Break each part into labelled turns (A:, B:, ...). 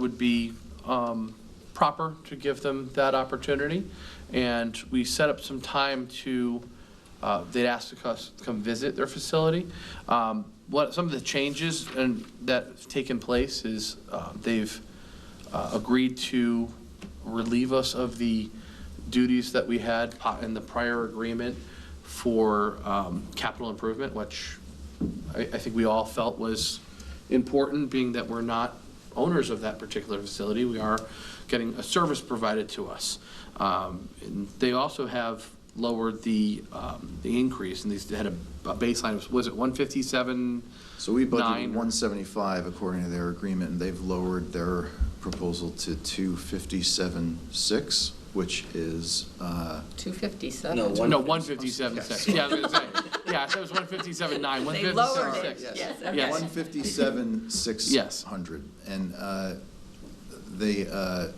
A: would be um, proper to give them that opportunity. And we set up some time to, uh, they'd ask us to come visit their facility. Um, What, some of the changes and that have taken place is uh, they've uh, agreed to relieve us of the duties that we had po- in the prior agreement for um, capital improvement, which I, I think we all felt was important, being that we're not owners of that particular facility. We are getting a service provided to us. Um, and They also have lowered the, um, the increase, and they had a a baseline, of- was it 157?
B: So we budgeted
A: Nine.
B: one seventy-five according to their agreement, and they've lowered their proposal to two fifty-seven six, which is, uh,
C: 257.
D: No, one-
A: No, 157.6, yeah, I was gonna say, yeah, I said it was 157.9,
C: They lowered
A: 157.6.
C: it, yes,
A: Yes.
B: one
C: okay.
B: fifty-seven six
A: Yes.
B: hundred. And, uh, they, uh,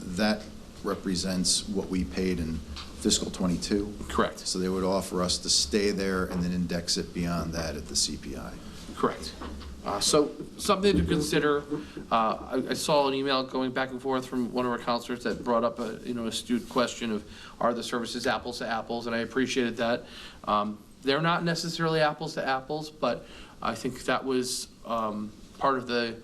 B: that represents what we paid in fiscal twenty-two.
A: Correct,
B: So they would offer us to stay there and then index it beyond that at the CPI.
A: correct. Uh, So something to consider. Uh, I I saw an email going back and forth from one of our counselors that brought up a, you know, astute question of, are the services apples to apples? And I appreciated that. Um, They're not necessarily apples to apples, but I think that was um, part of the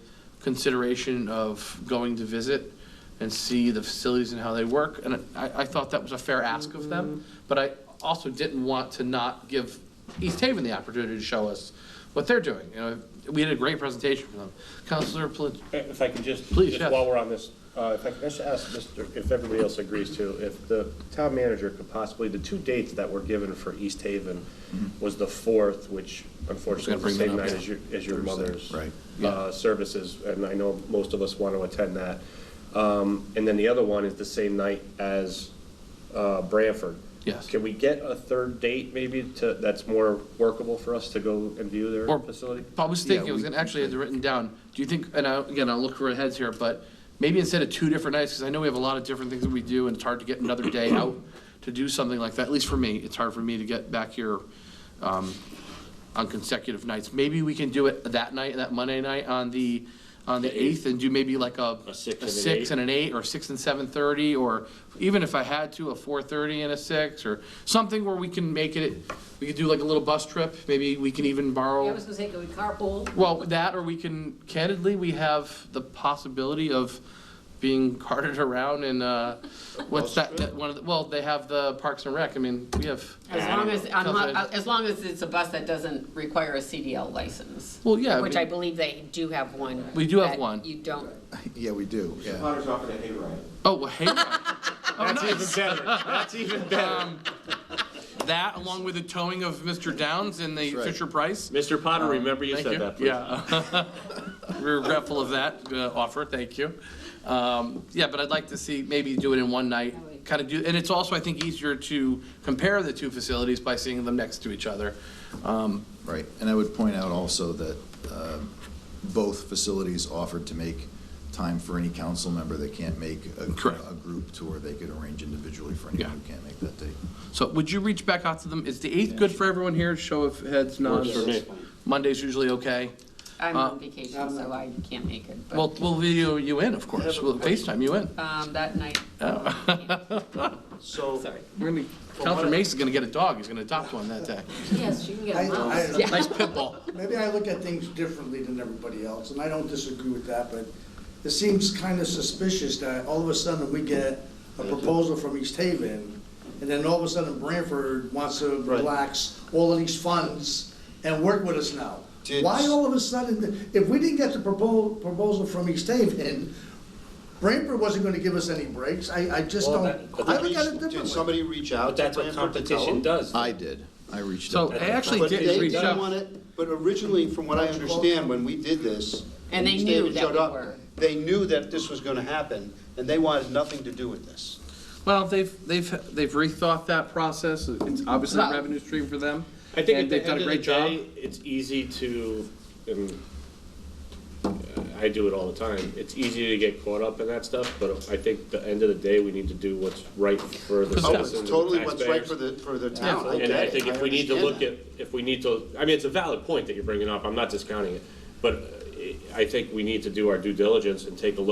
A: consideration of going to visit and see the facilities and how they work. And I, I thought that was a fair ask of them, but I also didn't want to not give East Haven the opportunity to show us what they're doing. You know, we had a great presentation from them. Counselor Palin,
E: If I could just,
A: Please,
E: just
A: yes.
E: while we're on this, uh, if I could just ask, Mr. if everybody else agrees to, if the town manager could possibly, the two dates that were given for East Haven was the 4th, which unfortunately
A: bring
E: is the same
A: that up,
E: night
A: yeah.
E: as your, as your mother's
B: right.
E: uh, services, and I know most of us want to attend that. Um, And then the other one is the same night as uh, Branford.
A: Yes.
E: Can we get a third date maybe to, that's more workable for us to go and view their
A: Or-
E: facility?
A: I was
B: Yeah,
A: thinking, I was
B: we-
A: gonna actually have it written down. Do you think, and I, again, I'll look for our heads here, but maybe instead of two different nights, because I know we have a lot of different things that we do, and it's hard to get another day out to do something like that, at least for me, it's hard for me to get back here, um, on consecutive nights. Maybe we can do it that night, that Monday night on the, on the eighth, and do maybe like a.
D: A six and an
A: six
D: eight.
A: and an eight, or six and seven thirty, or even if I had to, a four thirty and a six, or something where we can make it, we could do like a little bus trip, maybe we can even borrow.
F: I was gonna say, can we carpool?
A: Well, that, or we can, candidly, we have the possibility of being carted around in, uh, what's that, that one of, the- well, they have the Parks and Rec, I mean, we have,
C: As long as, I'm
A: Because
C: not- as long as it's a bus that doesn't require a CDL license.
A: Well, yeah, I
C: Which I
A: mean-
C: believe they do have one.
A: We do have
C: that
A: one.
C: You don't,
B: Yeah, we do, yeah.
G: Potter's offered a hayride.
A: oh, well, hayride. Oh, nice. Um,
E: better, that's even better.
A: That, along with the towing of Mr. Downs and the
B: That's right.
A: Fisher Price.
D: Mr. Potter, remember you
A: Uh, Thank
D: said that, please.
A: Yeah. We're regretful of that uh, offer, thank you. Um, Yeah, but I'd like to see, maybe do it in one night, kind of do, and it's also, I think, easier to compare the two facilities by seeing them next to each other. Um,
B: Right, and I would point out also that um, both facilities offered to make time for any council member that can't make a,
A: Correct.
B: a group tour, they could arrange individually for anyone who
A: Yeah.
B: can't make that date.
A: So would you reach back out to them? Is the 8th good for everyone here? Show of heads, nods?
D: Works for me.
A: Monday's usually okay.
C: I'm
A: Uh,
C: on vacation, so I can't make it. but,
A: We'll, we'll video you in, of course. We'll FaceTime you in.
C: Um, that night.
A: oh.
E: So,
C: Sorry.
A: We're gonna, Counselor Mace is gonna get a dog. He's gonna adopt one that day.
F: Yes, you can get
H: I-
F: a mouse.
H: I-
A: Nice pit bull.
H: Maybe I look at things differently than everybody else, and I don't disagree with that, but it seems kind of suspicious that all of a sudden we get a proposal from East Haven, and then all of a sudden Branford wants to relax all of these funds and work with us now.
B: Did-
H: Why all of a sudden, if we didn't get the propo- proposal from East Haven, Branford wasn't going to give us any breaks, I, I just
E: Well,
H: don't,
E: that- but
H: I look at it differently.
G: reach
E: but that's what competition does.
B: I did, I reached
A: So
B: out.
A: I actually
G: But
A: did
G: they
A: reach
G: didn't want
A: out.
G: it, but originally, from what I understand, when we did this.
C: And they
G: when
C: knew
G: David
C: that
G: showed
C: we
G: up,
C: were.
G: They knew that this was gonna happen, and they wanted nothing to do with this.
A: Well, they've, they've, they've rethought that process. It's obviously a revenue stream for them.
E: I think
A: and
E: at the
A: they've done
E: end
A: a
E: of the
A: great job.
E: day, it's easy to, and uh, I do it all the time, it's easy to get caught up in that stuff, but I think the end of the day, we need to do what's right for the
A: It's
G: Oh, it's
E: citizens and
G: totally what's right
E: taxpayers.
G: for the, for the town, I get
E: And I
G: it.
E: think if
G: I
E: we need to
G: understand
E: look
G: that.
E: at, if we need to, I mean, it's a valid point that you're bringing up, I'm not discounting it, but uh, I I think we need to do our due diligence and take a look